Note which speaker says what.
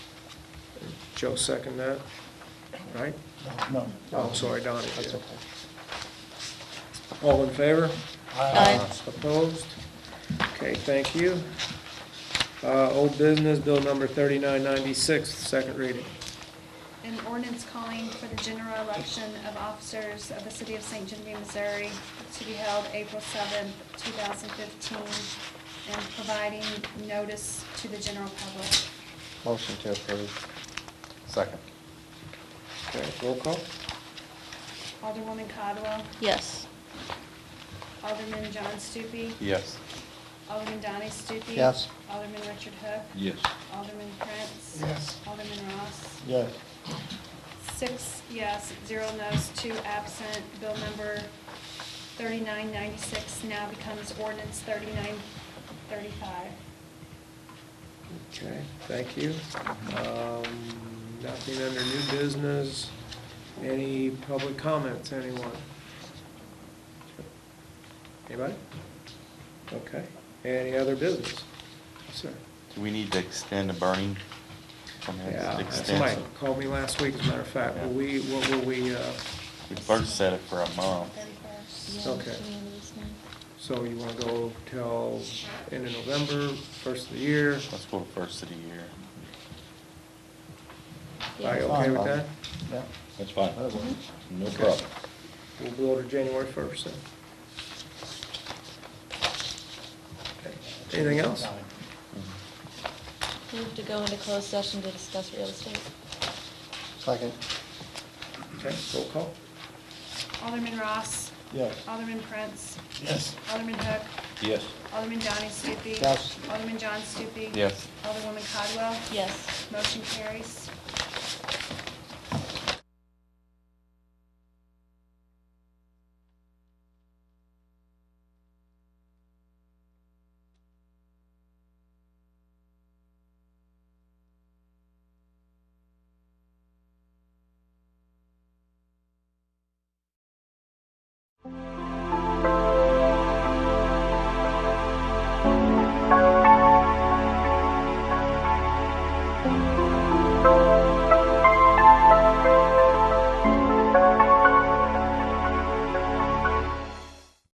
Speaker 1: Joe second that, right?
Speaker 2: No.
Speaker 1: Oh, I'm sorry, Donnie did. All in favor? Uh,
Speaker 3: Aye.
Speaker 1: Opposed? Okay, thank you. Uh, Old business, bill number 3996, second reading.
Speaker 4: An ordinance calling for the general election of officers of the city of St. Genevieve, Missouri to be held April seventh, two thousand fifteen, and providing notice to the general public.
Speaker 3: Motion to approve. Second.
Speaker 1: Okay, roll call?
Speaker 4: Alderwoman Codwell,
Speaker 5: Yes.
Speaker 4: Alderman John Stupi,
Speaker 3: Yes.
Speaker 4: Alderman Donnie Stupi.
Speaker 3: Yes.
Speaker 4: Alderman Richard Hook.
Speaker 3: Yes.
Speaker 4: Alderman Prince.
Speaker 2: Yes.
Speaker 4: Alderman Ross.
Speaker 2: Yes.
Speaker 4: Six yes, zero no's, two absent. Bill number 3996 now becomes ordinance 3935.
Speaker 1: Okay, thank you. Um, Nothing under new business. Any public comments, anyone? Anybody? Okay, any other business? Sir?
Speaker 6: Do we need to extend the burning? permits?
Speaker 1: Yeah, somebody
Speaker 6: Extend-
Speaker 1: called me last week, as a matter of fact. Will we, what will we, uh,
Speaker 6: We first set it for a month.
Speaker 4: 31st.
Speaker 1: Okay. so you want to go till end of November, first of the year?
Speaker 6: Let's go first of the year.
Speaker 1: Are you okay with that?
Speaker 2: Yeah.
Speaker 3: That's fine.
Speaker 2: that'll work.
Speaker 3: No
Speaker 1: Okay.
Speaker 3: problem.
Speaker 1: We'll go to January first then. Okay. Anything else?
Speaker 5: Move to go into closed session to discuss real estate.
Speaker 2: Second.
Speaker 1: Okay, roll call.
Speaker 4: Alderman Ross.
Speaker 2: Yes.
Speaker 4: Alderman Prince.
Speaker 2: Yes.
Speaker 4: Alderman Hook.
Speaker 3: Yes.
Speaker 4: Alderman Donnie Stupi.
Speaker 2: Yes.
Speaker 4: Alderman John Stupi.
Speaker 6: Yes.
Speaker 4: Alderwoman Codwell.
Speaker 5: Yes.
Speaker 4: Motion carries.